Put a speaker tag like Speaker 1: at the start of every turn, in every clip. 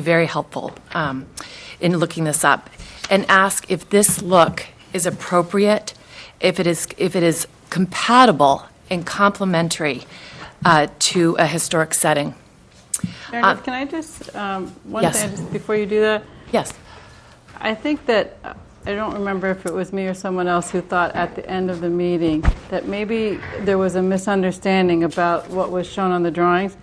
Speaker 1: be very helpful um, in looking this up, and ask if this look is appropriate, if it is, if it is compatible and complementary uh, to a historic setting.
Speaker 2: Meredith, can I just, um, one
Speaker 1: Uh, yes.
Speaker 2: thing, just before you do that,
Speaker 1: Yes,
Speaker 2: I think that, uh, I don't remember if it was me or someone else who thought at the end of the meeting that maybe there was a misunderstanding about what was shown on the drawings.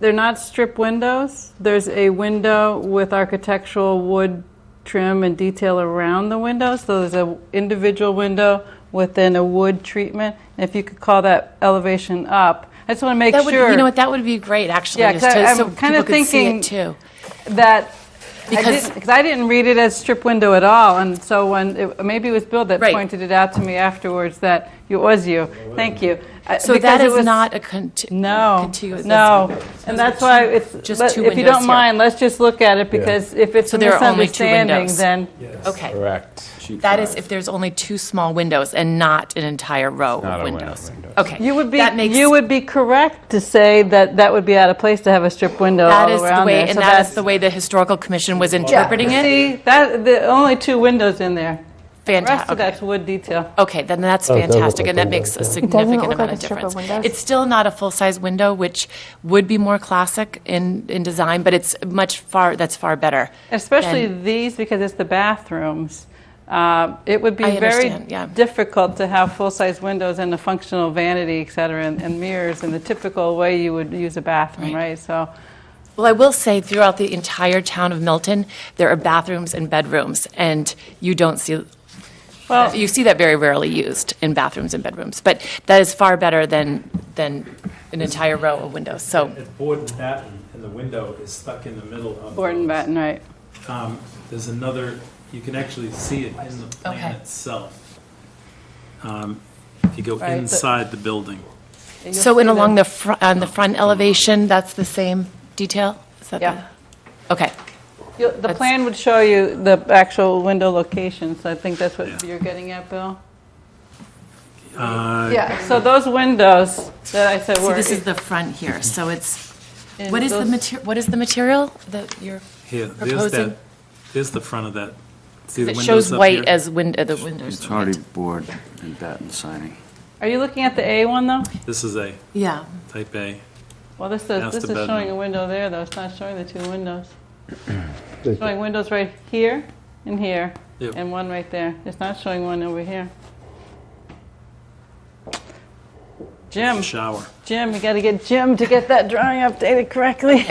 Speaker 2: They're not strip windows. There's a window with architectural wood trim and detail around the window. So there's an individual window within a wood treatment. And if you could call that elevation up, I just want to make
Speaker 1: that would,
Speaker 2: sure
Speaker 1: you know what, that would be great, actually,
Speaker 2: Yeah,
Speaker 1: just
Speaker 2: 'cause
Speaker 1: to-
Speaker 2: I'm
Speaker 1: so
Speaker 2: kinda
Speaker 1: people could see
Speaker 2: thinking-
Speaker 1: it too.
Speaker 2: that
Speaker 1: Because-
Speaker 2: because I, didn't, 'cause I didn't read it as strip window at all, and so when it, maybe it was Bill that
Speaker 1: Right.
Speaker 2: pointed it out to me afterwards that it was you. Thank you. I-
Speaker 1: So
Speaker 2: because
Speaker 1: that
Speaker 2: it
Speaker 1: is
Speaker 2: was-
Speaker 1: not a conti-
Speaker 2: no
Speaker 1: contiguous.
Speaker 2: no, and that's why it's
Speaker 1: Just
Speaker 2: let-
Speaker 1: two
Speaker 2: if you
Speaker 1: windows
Speaker 2: don't
Speaker 1: here.
Speaker 2: mind, let's just look at it because if it's a
Speaker 1: there are only two
Speaker 2: misunderstanding,
Speaker 1: windows.
Speaker 2: then
Speaker 1: Okay.
Speaker 3: Correct.
Speaker 1: That is if there's only two small windows and not an entire row
Speaker 3: not
Speaker 1: of
Speaker 3: a window,
Speaker 1: windows.
Speaker 3: windows.
Speaker 1: Okay.
Speaker 2: you would be
Speaker 1: That makes-
Speaker 2: you would be correct to say that that would be out of place to have a strip window
Speaker 1: That
Speaker 2: all
Speaker 1: is the
Speaker 2: around
Speaker 1: way,
Speaker 2: there.
Speaker 1: and
Speaker 2: so
Speaker 1: that is
Speaker 2: that's-
Speaker 1: the way the historical commission was interpreting it.
Speaker 2: See, that the only two windows in there. Rest
Speaker 1: Fantastic.
Speaker 2: of that's wood detail.
Speaker 1: Okay, then that's
Speaker 4: Oh, it does look
Speaker 1: fantastic, and
Speaker 4: like
Speaker 1: that makes a
Speaker 4: windows,
Speaker 1: significant
Speaker 5: look
Speaker 1: amount
Speaker 5: like
Speaker 1: of
Speaker 5: a strip
Speaker 1: difference.
Speaker 5: of windows.
Speaker 1: It's still not a full-size window, which would be more classic in, in design, but it's much far, that's far better.
Speaker 2: Especially
Speaker 1: than-
Speaker 2: these, because it's the bathrooms. Uh, It would be
Speaker 1: I
Speaker 2: very
Speaker 1: understand, yeah.
Speaker 2: difficult to have full-size windows and a functional vanity, et cetera, and and mirrors in the typical way you would use a bathroom,
Speaker 1: Right.
Speaker 2: right? So,
Speaker 1: Well, I will say, throughout the entire town of Milton, there are bathrooms and bedrooms, and you don't see,
Speaker 2: well,
Speaker 1: you see that very rarely used in bathrooms and bedrooms, but that is far better than, than an entire row of windows, so,
Speaker 6: It's board and batten, and the window is stuck in the middle of.
Speaker 2: Board and batten, right.
Speaker 6: Um, There's another, you can actually see it in the plan
Speaker 1: Okay.
Speaker 6: itself. Um, If you go
Speaker 2: Right, but-
Speaker 6: inside the building.
Speaker 2: And you'll
Speaker 1: so in
Speaker 2: see
Speaker 1: along
Speaker 2: that-
Speaker 1: the, fr- on the front elevation, that's the same detail? Is that the-
Speaker 2: Yeah.
Speaker 1: Okay,
Speaker 2: you'll- The plan would show you the actual window locations. I think that's what
Speaker 6: Yeah.
Speaker 2: you're getting at, Bill?
Speaker 6: Uh,
Speaker 2: Yeah, so those windows that I said
Speaker 1: see,
Speaker 2: were.
Speaker 1: this is the front here, so it's,
Speaker 2: in
Speaker 1: what is the
Speaker 2: those-
Speaker 1: mater, what is the material that you're
Speaker 6: Here, there's
Speaker 1: proposing?
Speaker 6: that, there's the front of that. See the
Speaker 1: It
Speaker 6: windows
Speaker 1: shows
Speaker 6: up
Speaker 1: white
Speaker 6: here?
Speaker 1: as window, the windows.
Speaker 7: It's already board and batten signing.
Speaker 2: Are you looking at the A one, though?
Speaker 6: This is a
Speaker 1: Yeah,
Speaker 6: type A.
Speaker 2: Well, this
Speaker 6: That's
Speaker 2: is, this
Speaker 6: the
Speaker 2: is showing
Speaker 6: bedroom.
Speaker 2: a window there, though. It's not showing the two windows.
Speaker 4: Thank
Speaker 2: Showing windows right here and here,
Speaker 6: Yep.
Speaker 2: and one right there. It's not showing one over here. Jim,
Speaker 6: Shower.
Speaker 2: Jim, you got to get Jim to get that drawing updated correctly.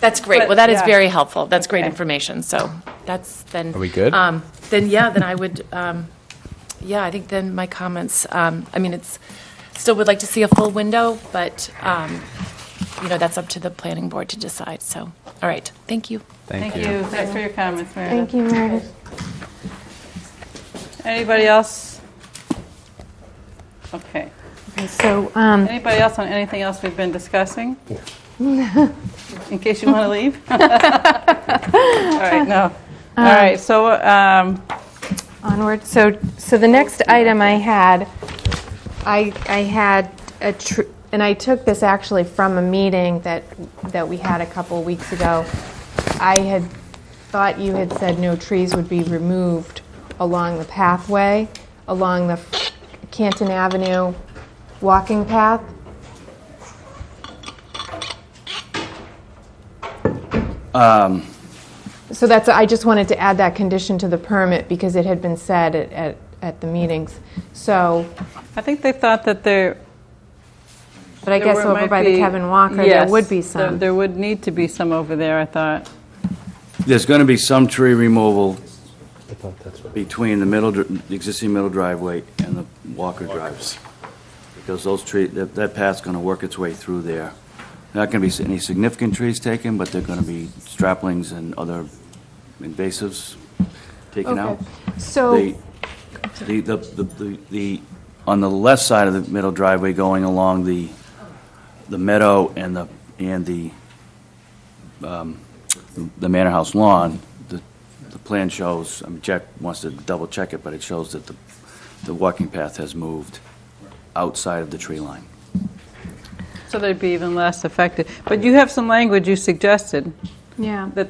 Speaker 1: that's great.
Speaker 2: But,
Speaker 1: Well, that is
Speaker 2: yeah.
Speaker 1: very helpful. That's great
Speaker 2: Okay.
Speaker 1: information, so that's then.
Speaker 3: Are we good?
Speaker 1: Um, Then, yeah, then I would, um, yeah, I think then my comments, um, I mean, it's, still would like to see a full window, but, um, you know, that's up to the planning board to decide, so, all right, thank you.
Speaker 2: Thank you. Thanks for your comments, Meredith.
Speaker 5: Thank you, Meredith.
Speaker 2: Anybody else? Okay.
Speaker 5: Okay, So, um,
Speaker 2: Anybody else on anything else we've been discussing? In case you want to leave? All right, no. All right, so, um,
Speaker 5: onward, so, so the next item I had, I, I had a tr, and I took this actually from a meeting that, that we had a couple weeks ago. I had thought you had said no trees would be removed along the pathway, along the Canton Avenue walking path. So that's, I just wanted to add that condition to the permit because it had been said at, at, at the meetings. So,
Speaker 2: I think they thought that there,
Speaker 5: but I
Speaker 2: There
Speaker 5: guess
Speaker 2: were-
Speaker 5: over
Speaker 2: might
Speaker 5: by the
Speaker 2: be-
Speaker 5: Kevin Walker, there
Speaker 2: yes,
Speaker 5: would be
Speaker 2: there-
Speaker 5: some.
Speaker 2: There would need to be some over there, I thought.
Speaker 7: There's going to be some tree removal
Speaker 4: I thought that's what.
Speaker 7: between the middle, dr- the existing middle driveway and the Walker driveway. Because those tree, that that path's going to work its way through there. Not going to be any significant trees taken, but they're going to be straplings and other invasives taken out.
Speaker 5: Okay. So,
Speaker 7: The, the, the- the, the, on the left side of the middle driveway going along the, the meadow and the, and the, um, the manor house lawn, the, the plan shows, I mean, Jack wants to double check it, but it shows that the, the walking path has moved outside of the tree line.
Speaker 2: So they'd be even less affected. But you have some language you suggested
Speaker 5: Yeah.
Speaker 2: that